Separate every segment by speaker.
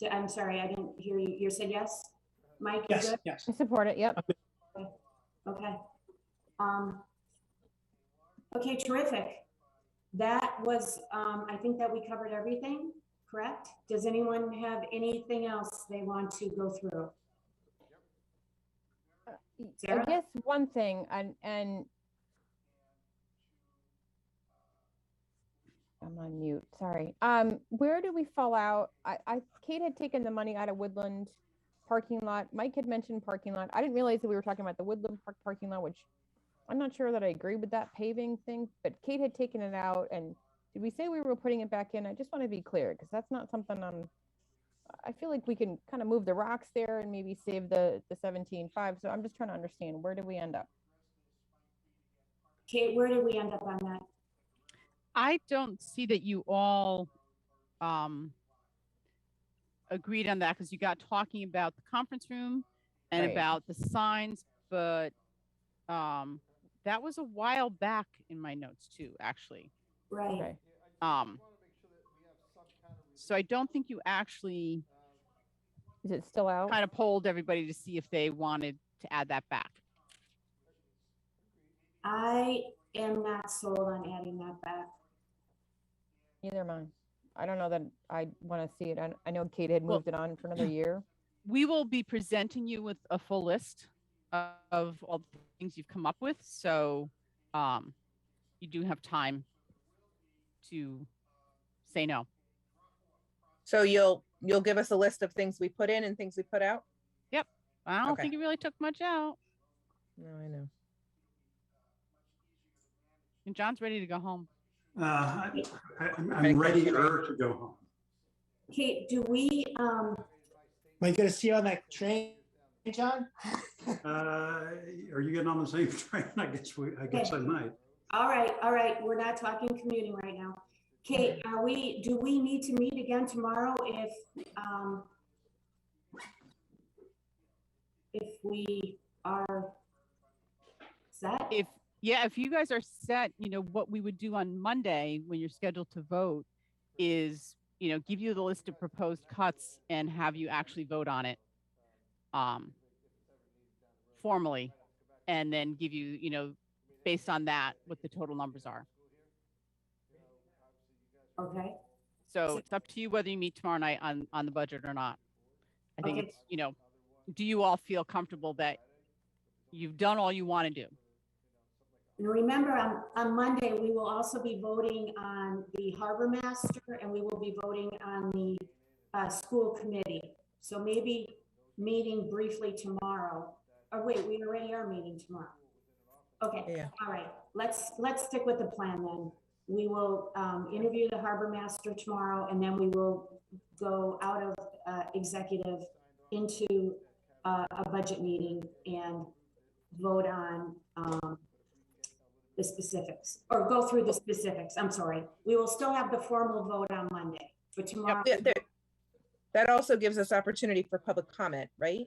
Speaker 1: to, I'm sorry, I didn't hear you. You said yes? Mike, you
Speaker 2: Yes,
Speaker 1: good?
Speaker 2: yes.
Speaker 3: I support it, yep.
Speaker 1: Okay. Um, okay, terrific. That was, um, I think that we covered everything, correct? Does anyone have anything else they want to go through?
Speaker 3: I
Speaker 1: Sarah?
Speaker 3: guess one thing, and, and I'm on mute, sorry. Um, where do we fall out? I, I, Kate had taken the money out of Woodland parking lot. Mike had mentioned parking lot. I didn't realize that we were talking about the Woodland Park parking lot, which I'm not sure that I agree with that paving thing, but Kate had taken it out and did we say we were putting it back in? I just want to be clear, because that's not something I'm I feel like we can kind of move the rocks there and maybe save the, the seventeen five. So I'm just trying to understand, where did we end up?
Speaker 1: Kate, where did we end up on that?
Speaker 4: I don't see that you all um, agreed on that because you got talking about the conference room and
Speaker 3: Right.
Speaker 4: about the signs, but um, that was a while back in my notes too, actually.
Speaker 1: Right,
Speaker 3: Okay.
Speaker 4: Um, so I don't think you actually
Speaker 3: Is it still out?
Speaker 4: kind of polled everybody to see if they wanted to add that back.
Speaker 1: I am not sold on adding that back.
Speaker 3: Neither am I. I don't know that I want to see it. I, I know Kate had
Speaker 4: Well-
Speaker 3: moved it on for another year.
Speaker 4: we will be presenting you with a full list of- of all the things you've come up with. So um, you do have time to say no.
Speaker 5: So you'll, you'll give us a list of things we put in and things we put out?
Speaker 4: I don't
Speaker 5: Okay.
Speaker 4: think you really took much out.
Speaker 5: No, I know.
Speaker 4: And John's ready to go home.
Speaker 2: Uh, I- I- I'm I'm ready er to go home.
Speaker 1: Kate, do we, um,
Speaker 6: Am I gonna see you on that train, John?
Speaker 2: Uh, Are you getting on the same train? I guess we, I guess I might.
Speaker 1: all right, all right, we're not talking commuting right now. Kate, are we, do we need to meet again tomorrow if, um, if we are set?
Speaker 4: If yeah, if you guys are set, you know what we would do on Monday when you're scheduled to vote is you know give you the list of proposed cuts and have you actually vote on it um, formally, and then give you you know based on that what the total numbers are.
Speaker 1: Okay,
Speaker 4: So it's up to you whether you meet tomorrow night on on the budget or not. I think
Speaker 1: Okay.
Speaker 4: it's you know, do you all feel comfortable that you've done all you want to do?
Speaker 1: and remember, on, on Monday, we will also be voting on the harbor master and we will be voting on the, uh, school committee. So maybe meeting briefly tomorrow, or wait, we already are meeting tomorrow. Okay.
Speaker 5: Yeah.
Speaker 1: All right, let's, let's stick with the plan then. We will um, interview the harbor master tomorrow, and then we will go out of uh, executive into uh, a budget meeting and vote on um, the specifics, or go through the specifics, I'm sorry. We will still have the formal vote on Monday, but tomorrow,
Speaker 5: Yeah, there- That also gives us opportunity for public comment, right?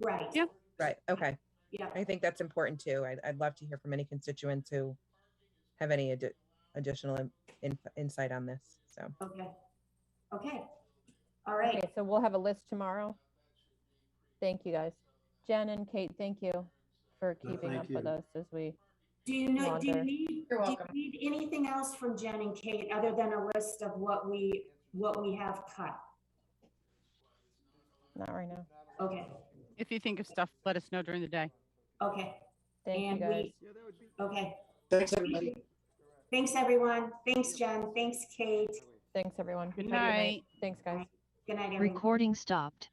Speaker 1: right,
Speaker 4: Yeah.
Speaker 5: Right, okay.
Speaker 1: yeah,
Speaker 5: I think that's important too. I'd, I'd love to hear from any constituents who have any addi- additional in- in- insight on this, so.
Speaker 1: okay. Okay, all right.
Speaker 3: Okay, so we'll have a list tomorrow. Thank you, guys. Jen and Kate, thank you for
Speaker 2: No,
Speaker 3: keeping
Speaker 2: thank
Speaker 3: up with
Speaker 2: you.
Speaker 3: us as we,
Speaker 1: Do you know, do you
Speaker 3: Wander.
Speaker 1: need,
Speaker 7: You're
Speaker 1: do you
Speaker 7: welcome.
Speaker 1: need anything else from Jen and Kate other than a list of what we, what we have cut?
Speaker 3: not right now.
Speaker 1: Okay,
Speaker 4: If you think of stuff, let us know during the day.
Speaker 1: okay,
Speaker 3: Thank you,
Speaker 1: and
Speaker 3: guys.
Speaker 1: we, okay.
Speaker 6: Thanks, everybody.
Speaker 1: Thanks, everyone. Thanks, Jen. Thanks, Kate.
Speaker 3: Thanks, everyone.
Speaker 4: Good
Speaker 3: Have a
Speaker 4: night.
Speaker 3: Thanks, guys.
Speaker 1: Good night, everyone.
Speaker 8: Recording stopped.